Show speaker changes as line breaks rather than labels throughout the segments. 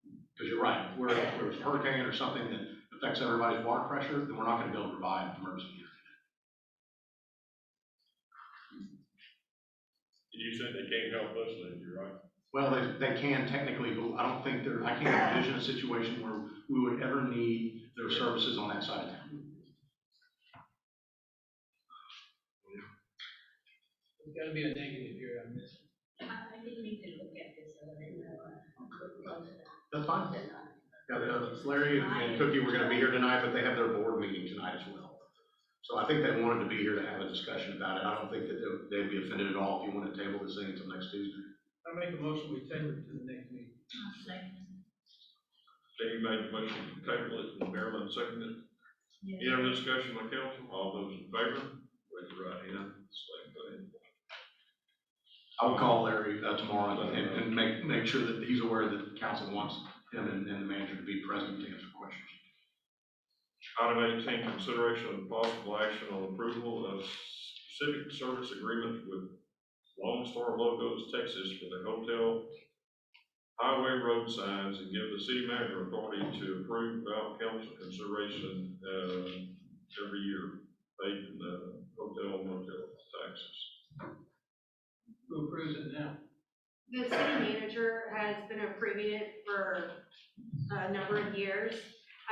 Because you're right, if we're, if there's a hurricane or something that affects everybody's water pressure, then we're not gonna be able to provide emergency.
You said they can't help us, then, you're right.
Well, they, they can technically, but I don't think there, I can't envision a situation where we would ever need their services on that side of town.
There's gotta be a negative here on this.
I I didn't need to look at this, so I didn't know.
That's fine. Yeah, uh, Larry and Cookie were gonna be here tonight, but they have their board meeting tonight as well. So I think they wanted to be here to have a discussion about it. I don't think that they- they'd be offended at all if you want to table this thing until next Tuesday.
I make a motion, we table it to the next meeting.
Jamie made a motion to table it, and Marilyn seconded it. Any other discussion on council? All those in favor, raise your right hand. Same thing.
I'll call Larry uh, tomorrow and, and make, make sure that he's aware that council wants him and, and the manager to be present to answer questions.
Item eighteen, consideration of possible action on approval of specific service agreement with Lone Star Logos Texas for the hotel highway road signs and give the city manager authority to approve without council consideration, uh, every year, paid in the hotel motel taxes.
Who approves it now?
The city manager has been approving it for a number of years.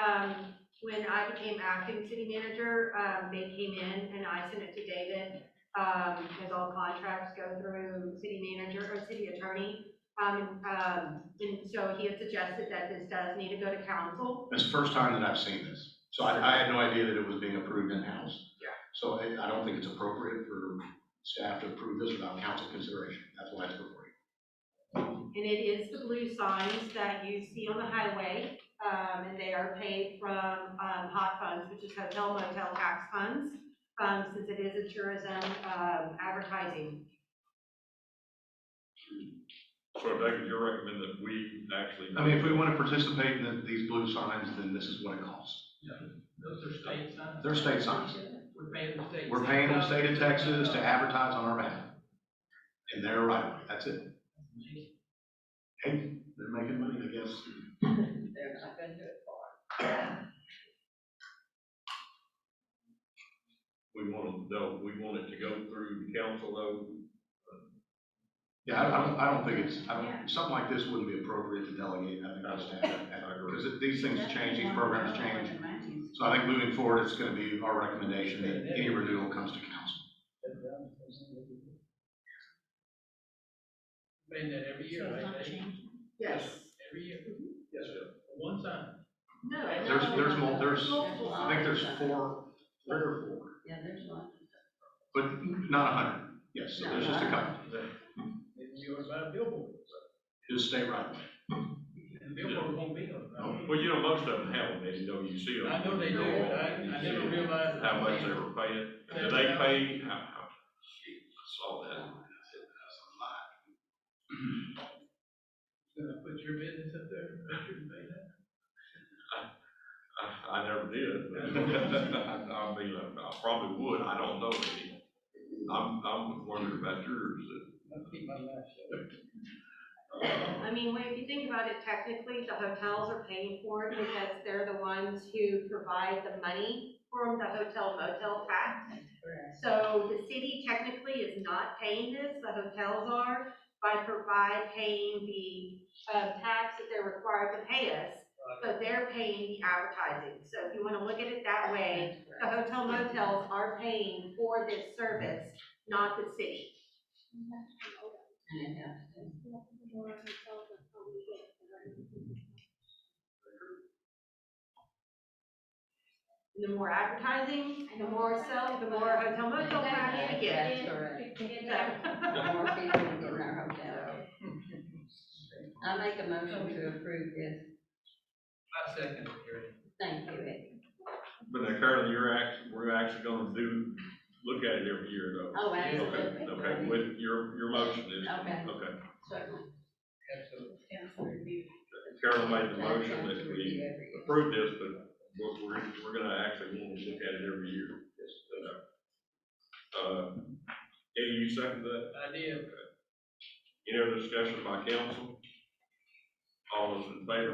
Um, when I became acting city manager, um, they came in and I sent it to David. Um, because all contracts go through city manager or city attorney. Um, um, and so he had suggested that this does need to go to council.
It's the first time that I've seen this, so I, I had no idea that it was being approved in-house.
Yeah.
So I, I don't think it's appropriate for staff to approve this without council consideration, that's why it's before you.
And it is the blue signs that you see on the highway, um, and they are paid from, um, hot funds, which is hotel motel tax funds, um, since it is a tourism, um, advertising.
So David, you recommend that we actually.
I mean, if we want to participate in the- these blue signs, then this is what it costs.
Those are state signs?
They're state signs,
We're paying the state.
we're paying the state of Texas to advertise on our behalf. And they're right, that's it, hey, they're making money, I guess.
They're not gonna do it for.
We want to, no, we want it to go through the council though.
Yeah, I, I don't, I don't think it's, I
Yeah.
don't, something like this wouldn't be appropriate to delegate, I think, to staff,
I agree.
because these things change, these programs change. So I think moving forward, it's gonna be our recommendation that any renewal comes to council.
Paying that every year, right?
Yes.
Every year. Yes, sir. One time.
No.
There's, there's more, there's,
Multiple
I think there's
options.
four, three or four,
Yeah, there's one.
but not a hundred. Yes, so there's just a couple.
Maybe you were about billboard.
Just stay right away.
And billboard won't be on.
Well, you know, most of them have them, and you know, you see them.
I know they do, but I, I never realized.
How much they were paying, and they pay, how, how, shoot, I saw that.
Gonna put your business up there, I shouldn't pay that.
I, I never did. I mean, I I probably would, I don't know any. I'm, I'm wondering about yours,
I'll keep my mouth shut.
uh,
I mean, when- if you think about it, technically, the hotels are paying for it because they're the ones who provide the money from the hotel motel tax. So the city technically is not paying this, the hotels are, by provide, paying the, uh, tax that they're required to pay us. So they're paying the advertising, so if you wanna look at it that way, the hotel motels are paying for this service, not the city. And The more advertising, the more sell, the more hotel motel tax you get.
That's correct.
So-
More people in our hotel. I make a motion to approve this.
I second it, Gary.
Thank you, Eddie.
but now currently, you're act, we're actually gonna do, look at it every year though.
Oh,
Okay,
absolutely.
okay, with your, your motion is,
Okay.
okay.
Certainly.
Absolutely.
Carolyn made the motion that we approve this, but we're, we're, we're gonna actually want to look at it every year. Uh, Eddie, you second that?
I did.
Any other discussion by council? All those in favor,